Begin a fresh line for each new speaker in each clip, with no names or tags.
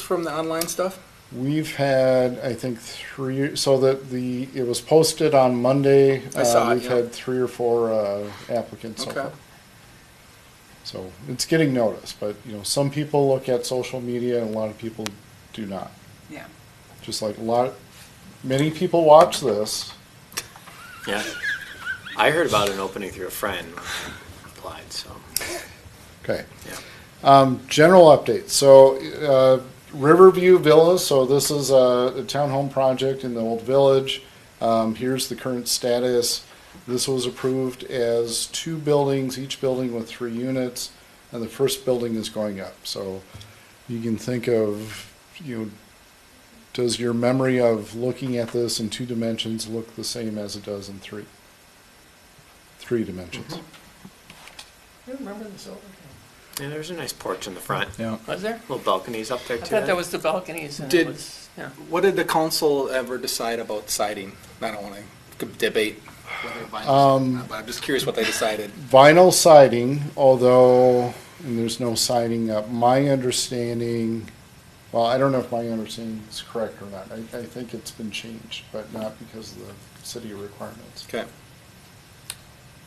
from the online stuff?
We've had, I think, three. So that the it was posted on Monday.
I saw
uh,
it,
We've
yeah.
had three or four uh, applicants. so
Okay.
far. So it's getting noticed, but you know, some people look at social media, and a lot of people do not.
Yeah.
Just like a lot, many people watch this.
Yeah. I heard about an opening through a friend when I applied, so,
Okay.
yeah.
Um, general update. So, uh, Riverview Villas. So this is a, a townhome project in the old village. Um, here's the current status. This was approved as two buildings, each building with three units, and the first building is going up. So, you can think of you. Know, does your memory of looking at this in two dimensions look the same as it does in three? Three dimensions.
I Mm-hmm. remember this over.
Yeah, there's a nice porch in the front.
Yeah.
Was there?
Little balconies up there
I
too.
thought that was the balconies and it
Did-
was, yeah.
What did the council ever decide about siding? I don't want to debate whether vinyl,
Um,
but I'm just curious what they decided.
vinyl siding, although, and there's no siding up, my understanding, well, I don't know if my understanding is correct or not. I, I think it's been changed, but not because of the city requirements.
Okay.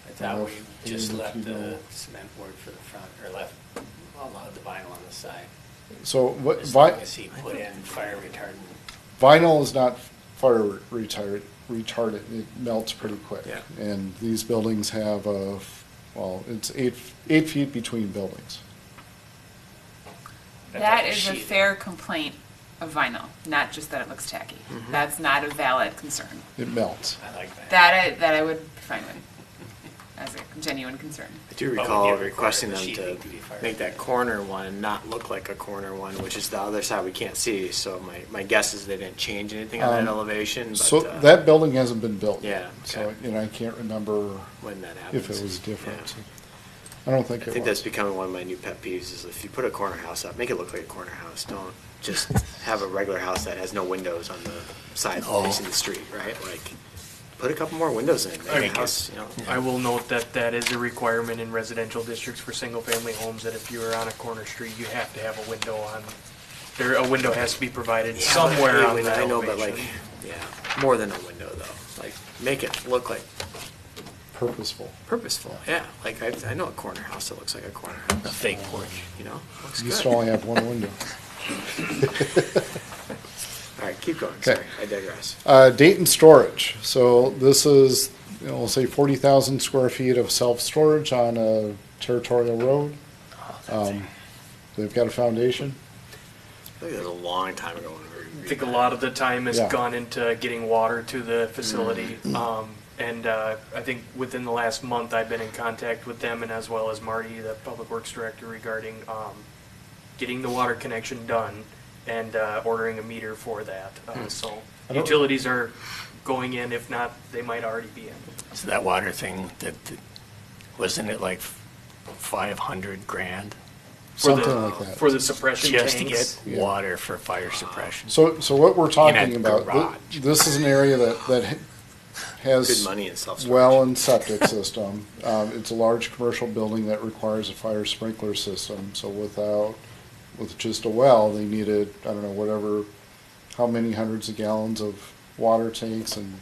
I thought we just
And if you
left the
go-
cement board for the front, or left a lot of the vinyl on the side.
So what,
As long
vi-
as he put in fire retardant.
vinyl is not fire retardant, retardant, it melts pretty quick.
Yeah.
And these buildings have a, f- well, it's eight, eight feet between buildings.
That
like
is a
sheathing.
fair complaint of vinyl, not just that it looks tacky.
Mm-hmm.
That's not a valid concern.
It melts.
I like that.
That I, that I would find with as a genuine concern.
I do
But Oh,
recall
we did require
requesting
the
them to
sheathing to be fire
make that
retardant.
corner one not look like a corner one, which is the other side we can't see. So my, my guess is they didn't change anything on
Um,
that elevation, but.
So
uh,
that building hasn't been built.
Yeah,
So,
okay.
you know, I can't remember
When that happens.
if it was different.
Yeah.
I don't think
I
it
think that's
was.
becoming one of my new pet peeves is if you put a corner house up, make it look like a corner house. Don't just have a regular house that has no windows on the side
Oh.
facing the street, right? Like, put a couple more windows in,
I
make a
guess-
house, you know.
I will note that that is a requirement in residential districts for single-family homes, that if you are on a corner street, you have to have a window on, there, a window has to be provided
Yeah,
somewhere
but-
on that
I know, but like,
elevation.
yeah, more than a window though. Like, make it look like
Purposeful.
purposeful. Yeah, like I, I know a corner house that looks like a corner house. A fake porch. You know, looks
You
good.
still only have one window.
All right, keep going.
Okay.
Sorry, I digress.
Uh, Dayton Storage. So this is, you know, we'll say forty thousand square feet of self-storage on a territorial road.
Oh,
Um, They've got a foundation.
I think that was a long time ago when we
I
were.
think a lot of the time has
Yeah. Mm-hmm.
gone into getting water to the facility.
Mm-hmm.
Um, and, uh, I think within the last month, I've been in contact with them and as well as Marty, the Public Works Director regarding, um, getting the water connection done and, uh, ordering a meter for that.
Hmm.
Uh, so
I don't-
utilities are going in, if not, they might already be in.
So that water thing, that, that- wasn't it like five hundred grand?
For the-
Something like that.
For the suppression
Just to get
tanks.
Yeah.
water for fire suppression?
So, so what we're talking
a
about, thi-
garage.
this is an area that, that ha- has.
Good money in self-storage.
well and septic system. Um, it's a large commercial building that requires a fire sprinkler system, so without, with just a well, they needed, I don't know, whatever, how many hundreds of gallons of water tanks and,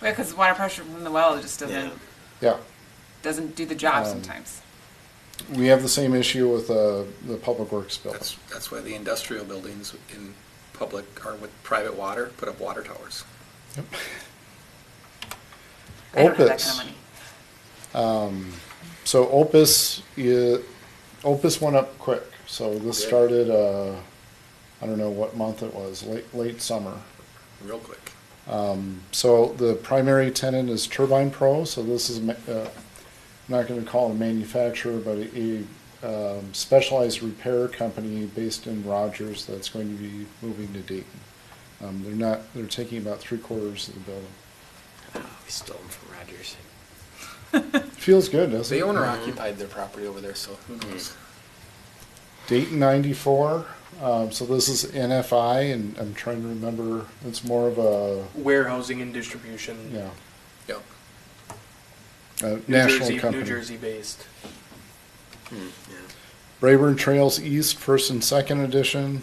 Because water pressure from the well just doesn't
Yeah.
yeah.
doesn't do the job
Um,
sometimes.
We have the same issue with, uh, the public works building.
That's, that's why the industrial buildings in public are with private water, put up water towers.
I don't have that
Opus.
kind of money.
So Opus, i- Opus went up quick. So this
Yeah.
started, uh, I don't know what month it was, late, late summer.
Real quick.
So the primary tenant is Turbine Pro, so this is, ma- uh, I'm not going to call it a manufacturer, but a a, um, specialized repair company based in Rogers that's going to be moving to Dayton. Um, They're not, they're taking about three quarters of the building.
Oh, we stole them from Rogers.
Feels good, doesn't it?
The owner occupied their property over there, so who knows?
Dayton 94, um, so this is NFI, and I'm trying to remember, it's more of a,
Warehousing and distribution.
you know,
Yep.
a
New
national
Jersey-
company.
New Jersey based.
Hmm, yeah.
Rayburn Trails East, first and second edition.